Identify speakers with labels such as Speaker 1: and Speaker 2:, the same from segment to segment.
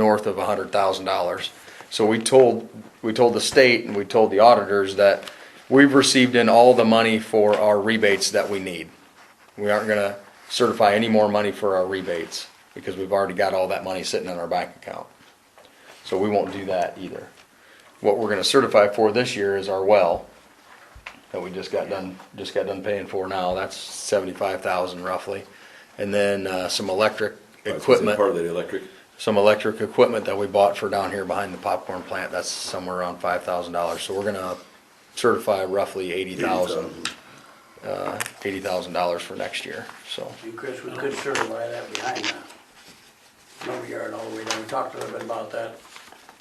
Speaker 1: north of hundred thousand dollars. So we told, we told the state and we told the auditors that we've received in all the money for our rebates that we need. We aren't gonna certify any more money for our rebates, because we've already got all that money sitting in our bank account. So we won't do that either. What we're gonna certify for this year is our well, that we just got done, just got done paying for now, that's seventy-five thousand roughly. And then, uh, some electric equipment
Speaker 2: Part of the electric.
Speaker 1: some electric equipment that we bought for down here behind the popcorn plant, that's somewhere around five thousand dollars, so we're gonna certify roughly eighty thousand, uh, eighty thousand dollars for next year, so.
Speaker 3: And Chris, we could certify that behind the lumber yard all the way down. We talked a little bit about that.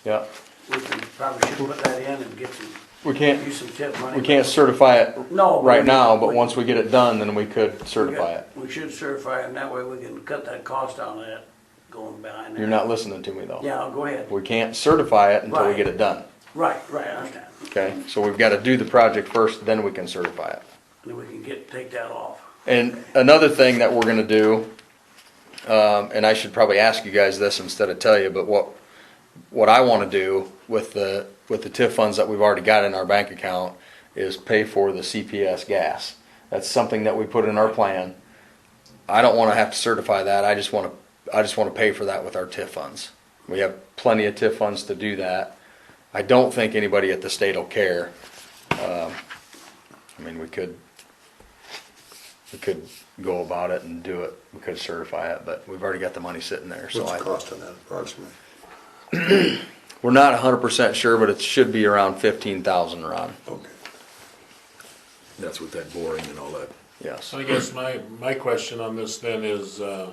Speaker 1: Yeah,
Speaker 3: We can probably should put that in and get some,
Speaker 1: we can't,
Speaker 3: use some tip money.
Speaker 1: we can't certify it
Speaker 3: No,
Speaker 1: right
Speaker 3: we-
Speaker 1: now, but
Speaker 3: we-
Speaker 1: once we get it done, then we could
Speaker 3: We got-
Speaker 1: certify it.
Speaker 3: We should certify it, and that way we can cut that cost down of that going behind that.
Speaker 1: You're not listening to me though.
Speaker 3: Yeah, go ahead.
Speaker 1: We can't certify it until we
Speaker 3: Right.
Speaker 1: get it done,
Speaker 3: Right, right, I understand.
Speaker 1: okay? So we've gotta do the project first, then we can certify it.
Speaker 3: Then we can get, take that off.
Speaker 1: And another thing that we're gonna do, um, and I should probably ask you guys this instead of tell you, but what, what I wanna do with the, with the TIF funds that we've already got in our bank account is pay for the CPS gas. That's something that we put in our plan. I don't wanna have to certify that, I just wanna, I just wanna pay for that with our TIF funds. We have plenty of TIF funds to do that. I don't think anybody at the state will care. Um, I mean, we could, we could go about it and do it, we could certify it, but we've already got the money sitting there, so
Speaker 4: What's
Speaker 1: I.
Speaker 4: the cost on that approximately?
Speaker 1: We're not hundred percent sure, but it should be around fifteen thousand, Ron,
Speaker 4: Okay.
Speaker 2: That's with that boring and all that.
Speaker 1: yes.
Speaker 5: I guess my, my question on this then is, uh,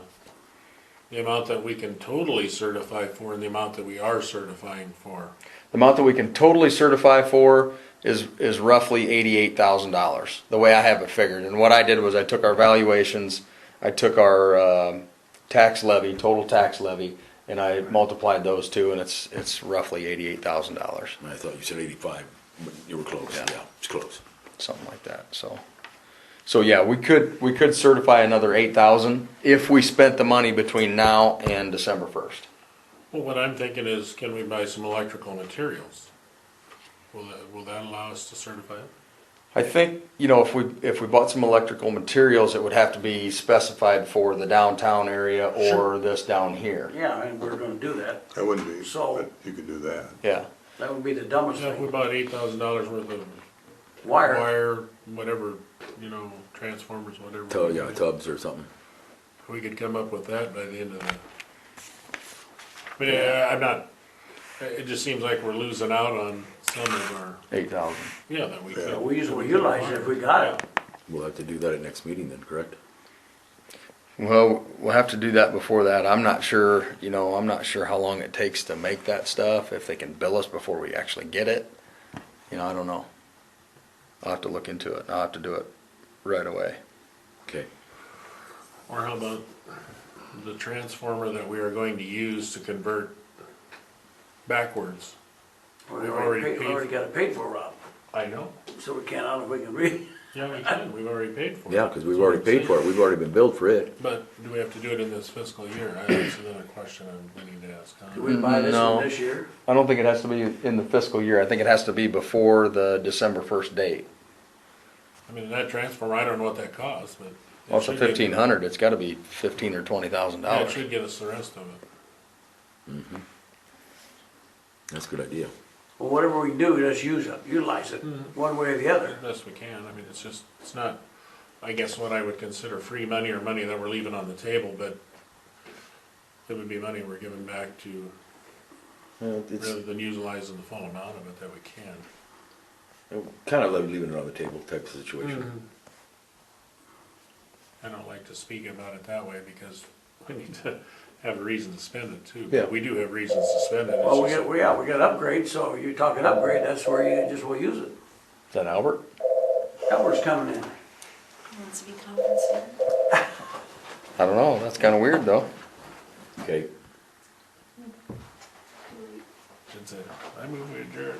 Speaker 5: the amount that we can totally certify for and the amount that we are certifying for.
Speaker 1: The amount that we can totally certify for is, is roughly eighty-eight thousand dollars, the way I have it figured. And what I did was I took our valuations, I took our, um, tax levy, total tax levy, and I multiplied those two, and it's, it's roughly eighty-eight thousand dollars,
Speaker 2: I thought you said eighty-five, but you were close, yeah, it's close.
Speaker 1: something like that, so. So yeah, we could, we could certify another eight thousand if we spent the money between now and December first.
Speaker 5: Well, what I'm thinking is, can we buy some electrical materials? Will that, will that allow us to certify it?
Speaker 1: I think, you know, if we, if we bought some electrical materials, it would have to be specified for the downtown area or this down here.
Speaker 3: Yeah, and we're gonna do that.
Speaker 4: That wouldn't be,
Speaker 3: So-
Speaker 4: but you could do that.
Speaker 1: Yeah,
Speaker 3: That would be the dumbest
Speaker 5: Yeah, if we
Speaker 3: thing.
Speaker 5: bought eight thousand dollars worth of
Speaker 3: Wire,
Speaker 5: wire, whatever, you know, transformers, whatever.
Speaker 2: Tub, Oh, yeah, tubs or something.
Speaker 5: We could come up with that by the end of the. But yeah, I'm not, it it just seems like we're losing out on some of our,
Speaker 1: eight thousand.
Speaker 5: yeah, that we could.
Speaker 3: Yeah, we usually utilize it if we got it.
Speaker 2: We'll have to do that at next meeting then, correct?
Speaker 1: Well, we'll have to do that before that. I'm not sure, you know, I'm not sure how long it takes to make that stuff, if they can bill us before we actually get it. You know, I don't know. I'll have to look into it. I'll have to do it right away.
Speaker 2: Okay,
Speaker 5: Or how about the transformer that we are going to use to convert backwards?
Speaker 3: We already
Speaker 5: already
Speaker 3: paid, we
Speaker 5: paid.
Speaker 3: already got it paid for, Rob.
Speaker 5: I know.
Speaker 3: So we can't, I don't know if we can read.
Speaker 5: Yeah, we can, we've already paid for it.
Speaker 2: yeah, cause we've already paid for it, we've already been billed for it.
Speaker 5: But do we have to do it in this fiscal year? I- That's another question I'm beginning to ask. huh?
Speaker 3: Do we buy this
Speaker 1: Mm, No.
Speaker 3: one this year?
Speaker 1: I don't think it has to be in the fiscal year. I think it has to be before the December first date.
Speaker 5: I mean, that transformer, I don't know what that costs, but. it
Speaker 1: Well, it's a
Speaker 5: should get-
Speaker 1: fifteen hundred, it's gotta be fifteen or twenty thousand
Speaker 5: Yeah, it
Speaker 1: dollars.
Speaker 5: should get us the rest of it.
Speaker 2: That's a good idea.
Speaker 3: Well, whatever we do, just use it, utilize it, one way or the other.
Speaker 5: Best we can. I mean, it's just, it's not, I guess what I would consider free money or money that we're leaving on the table, but it would be money we're giving back to, rather than utilizing the full amount of it that we can.
Speaker 2: Kind of like leaving it on the table type of situation.
Speaker 5: I don't like to speak about it that way because we need to have a reason to spend it too.
Speaker 2: Yeah.
Speaker 5: We do have reasons to spend it. It's
Speaker 3: Well, we
Speaker 5: just-
Speaker 3: got, we, yeah, we got upgrade, so you're talking upgrade, that's where you just will use it.
Speaker 1: Is that Albert?
Speaker 3: That was coming in.
Speaker 6: Wants to be compensated.
Speaker 1: I don't know, that's kinda weird though.
Speaker 2: Okay,
Speaker 5: It's a, I move we adjourn.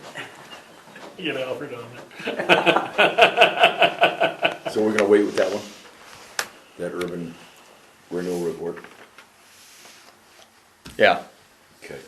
Speaker 5: Get Alfred on it.
Speaker 2: so we're gonna wait with that one? That urban renewal report?
Speaker 1: Yeah.
Speaker 2: Okay.